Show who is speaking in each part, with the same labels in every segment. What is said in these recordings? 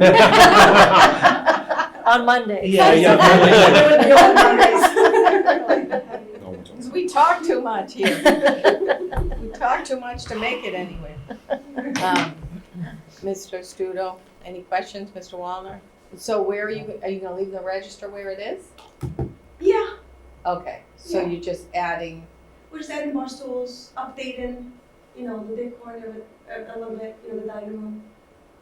Speaker 1: On Monday.
Speaker 2: Yeah, yeah,
Speaker 3: Because we talk too much here. We talk too much to make it anywhere. Um, Mr. Studo, any questions, Mr. Wallner? So where are you, are you gonna leave the register where it is?
Speaker 4: Yeah,
Speaker 3: Okay, so
Speaker 4: Yeah.
Speaker 3: you're just adding,
Speaker 4: we're just adding more stools, updating, you know, the big corner a, a little bit, you know, the dining room.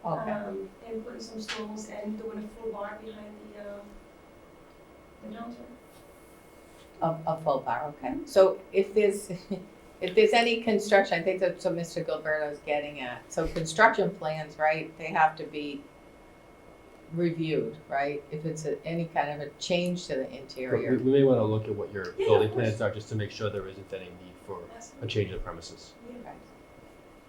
Speaker 3: okay,
Speaker 4: Um, and putting some stools and doing a full bar behind the, uh, the counter.
Speaker 3: a, a full bar, okay. So if there's, if there's any construction, I think that's what Mr. Gilberto's getting at. So construction plans, right, they have to be reviewed, right? If it's a- any kind of a change to the
Speaker 5: We,
Speaker 3: interior.
Speaker 5: we may want to look at what your
Speaker 4: Yeah,
Speaker 5: building
Speaker 4: of course.
Speaker 5: plans are, just to make sure there isn't any need for
Speaker 4: That's-
Speaker 5: a change of premises.
Speaker 4: yeah.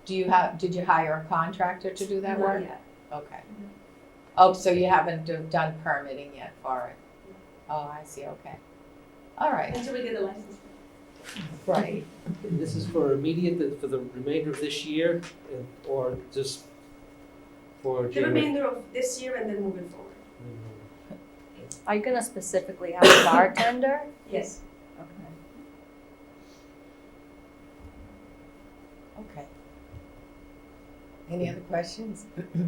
Speaker 3: Do you have, did you hire a contractor to do that
Speaker 4: Not
Speaker 3: work?
Speaker 4: yet. Mm-hmm.
Speaker 3: Okay.
Speaker 4: No.
Speaker 3: Oh, so you haven't do- done permitting yet for it? Oh, I see, okay. All right,
Speaker 4: Until we get the license.
Speaker 3: right.
Speaker 6: This is for immediate, for the remainder of this year, uh, or just for
Speaker 4: The
Speaker 6: January?
Speaker 4: remainder of this year and then moving forward.
Speaker 1: Are you gonna specifically have a bartender?
Speaker 4: Yes.
Speaker 3: Okay. Okay. Any other questions?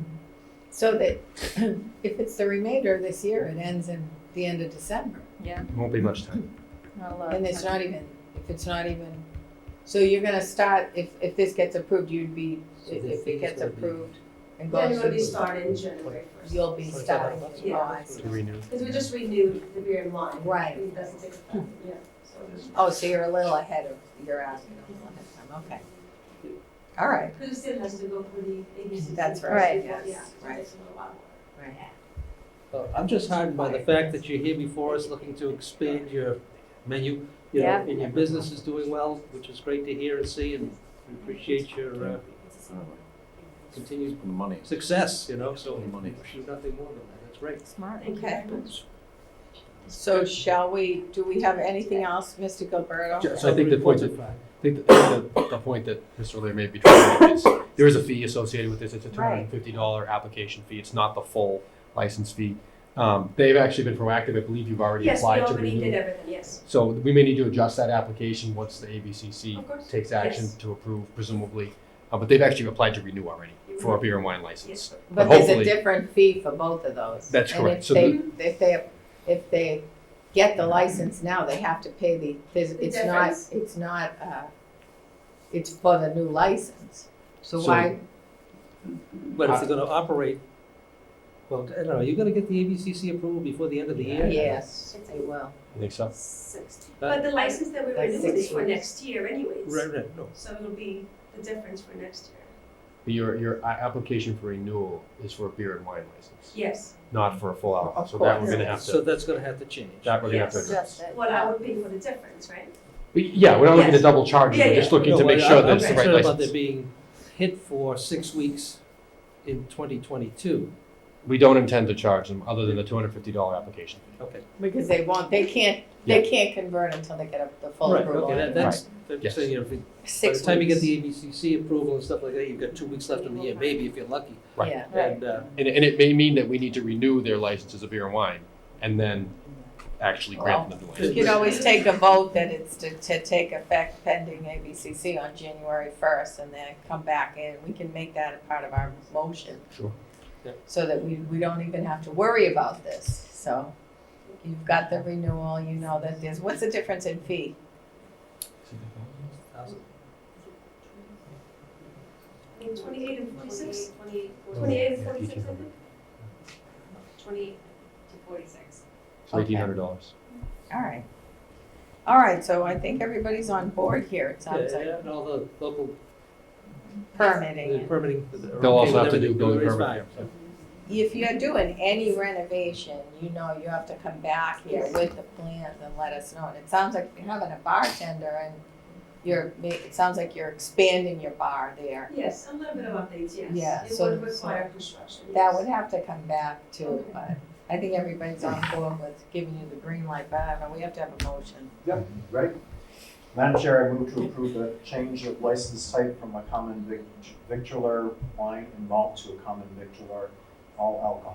Speaker 3: So that, if it's the remainder of this year, it ends in the end of December.
Speaker 5: Won't be much time.
Speaker 1: Not a lot.
Speaker 3: And it's not even, if it's not even, so you're gonna start, if, if this gets approved, you'd be,
Speaker 6: So the
Speaker 3: if
Speaker 6: thing
Speaker 3: it
Speaker 6: is
Speaker 3: gets
Speaker 6: gonna be-
Speaker 3: approved and
Speaker 4: Then
Speaker 3: goes
Speaker 4: we'll
Speaker 3: to,
Speaker 4: be starting January first.
Speaker 3: you'll be
Speaker 6: Sorry,
Speaker 3: starting.
Speaker 6: sorry.
Speaker 4: uh, Yeah.
Speaker 3: Oh, I see.
Speaker 5: To renew.
Speaker 4: Because we just renewed the beer and wine.
Speaker 3: Right.
Speaker 4: It doesn't take effect, yeah, so.
Speaker 3: Oh, so you're a little ahead of, you're asking a little ahead of time, okay. All right,
Speaker 4: Because it still has to go through the ABCC.
Speaker 3: That's
Speaker 4: first
Speaker 1: right.
Speaker 4: before-
Speaker 3: Yes,
Speaker 4: yeah, so
Speaker 3: right.
Speaker 4: that's a little while.
Speaker 3: right.
Speaker 6: Uh, I'm just heartened by the fact that you're here before us, looking to expand your menu. You know,
Speaker 1: Yeah.
Speaker 6: and your business is doing well, which is great to hear and see, and we appreciate your uh, continued
Speaker 7: Money.
Speaker 6: success, you know, so
Speaker 7: Money.
Speaker 6: wish you nothing more than that, that's great.
Speaker 1: Smart.
Speaker 4: Thank you
Speaker 3: Okay.
Speaker 4: very much.
Speaker 3: So shall we, do we have anything else, Mr. Gilberto?
Speaker 5: Ju- So I think the point
Speaker 6: Reported by-
Speaker 5: I think the, the, the point that Mr. Lear may be trying to make is there is a fee associated with this. It's a two hundred
Speaker 3: Right.
Speaker 5: and fifty dollar application fee. It's not the full license fee. Um, they've actually been proactive. I believe you've already
Speaker 4: Yes, we
Speaker 5: applied to
Speaker 4: already
Speaker 5: renew.
Speaker 4: did everything, yes.
Speaker 5: So we may need to adjust that application once the ABCC
Speaker 4: Of course.
Speaker 5: takes action
Speaker 4: Yes.
Speaker 5: to approve, presumably. Uh, but they've actually applied to renew already for a beer and wine
Speaker 4: Yes.
Speaker 5: license.
Speaker 3: But there's a
Speaker 5: hopefully-
Speaker 3: different fee for both of those.
Speaker 5: That's correct. So
Speaker 3: And if they, if they, if they get the license now, they have to pay the, there's,
Speaker 4: The
Speaker 3: it's not,
Speaker 4: difference.
Speaker 3: it's not, uh, it's for the new license. So
Speaker 5: So-
Speaker 3: why,
Speaker 6: But if they're
Speaker 5: Uh,
Speaker 6: gonna operate, well, I don't know, are you gonna get the ABCC approval before the end of the year?
Speaker 3: yes, they will.
Speaker 5: You think so?
Speaker 4: Six. But
Speaker 6: That-
Speaker 4: the license that we
Speaker 3: Like
Speaker 4: renewed
Speaker 3: six
Speaker 4: is for
Speaker 3: weeks.
Speaker 4: next year anyways.
Speaker 6: Right, right, no.
Speaker 4: So it'll be the difference for next year.
Speaker 5: Your, your a- application for renewal is for a beer and wine license,
Speaker 4: Yes,
Speaker 5: not for a full alcohol.
Speaker 3: Of
Speaker 5: So that we're
Speaker 3: course.
Speaker 5: gonna have
Speaker 6: So
Speaker 5: to,
Speaker 6: that's gonna have to change.
Speaker 5: that we're gonna have to
Speaker 4: Yes.
Speaker 5: address.
Speaker 4: well, I would pay for the difference, right?
Speaker 5: But Yeah, we're not looking to
Speaker 4: Yes.
Speaker 5: double charge you,
Speaker 4: Yeah,
Speaker 5: we're just
Speaker 4: yeah.
Speaker 5: looking to
Speaker 6: No,
Speaker 5: make
Speaker 6: I-
Speaker 5: sure
Speaker 6: I'm
Speaker 5: that it's the right
Speaker 6: concerned about there
Speaker 5: license.
Speaker 6: being hit for six weeks in twenty twenty-two.
Speaker 5: We don't intend to charge them, other than the two hundred fifty dollar application fee.
Speaker 6: Okay.
Speaker 3: Because they won't, they can't, they can't convert until they get a- the full
Speaker 6: Right,
Speaker 3: approval.
Speaker 6: okay, that, that's, I'm
Speaker 5: Yes.
Speaker 6: saying, you know, if you- by
Speaker 3: Six
Speaker 6: the
Speaker 3: weeks.
Speaker 6: time you get the ABCC approval and stuff like that, you've got two weeks left in the year, maybe if you're lucky.
Speaker 5: Right.
Speaker 3: Yeah.
Speaker 1: Right.
Speaker 6: And, uh,
Speaker 5: And, and it may mean that we need to renew their licenses of beer and wine, and then actually grant them the
Speaker 3: You
Speaker 5: license.
Speaker 3: could always take a vote that it's to, to take effect pending ABCC on January first and then come back in. We can make that a part of our motion.
Speaker 5: Sure.
Speaker 6: Yep.
Speaker 3: So that we, we don't even have to worry about this. So you've got the renewal, you know that there's, what's the difference in fee?
Speaker 4: I mean, Twenty-eight and forty-six? Twenty-eight. Twenty-eight and forty-six, I think.
Speaker 5: So
Speaker 4: Twenty-eight to forty-six.
Speaker 5: eighteen hundred dollars.
Speaker 3: All right. All right, so I think everybody's on board here, it sounds like,
Speaker 6: yeah, and all the local
Speaker 3: permitting.
Speaker 6: the
Speaker 3: and-
Speaker 6: permitting. are okay
Speaker 5: They'll also have
Speaker 6: with
Speaker 5: to do
Speaker 6: everything,
Speaker 5: building
Speaker 6: everybody's
Speaker 5: permit.
Speaker 6: fine.
Speaker 3: If you're doing any renovation, you know you have to come back here
Speaker 4: Yes.
Speaker 3: with the plans and let us know. And it sounds like you're having a bartender and you're, ma- it sounds like you're expanding your bar there.
Speaker 4: Yes, a little bit of updates, yes.
Speaker 3: Yeah,
Speaker 4: It
Speaker 3: so-
Speaker 4: would require construction,
Speaker 3: That
Speaker 4: yes.
Speaker 3: would have to come back to, but I think everybody's on board with giving you the green light, but I don't know, we have to have a motion.
Speaker 7: Right. Madam Chair, I move to approve the change of license type from a common vic- victular wine and malt to a common victular all alcohol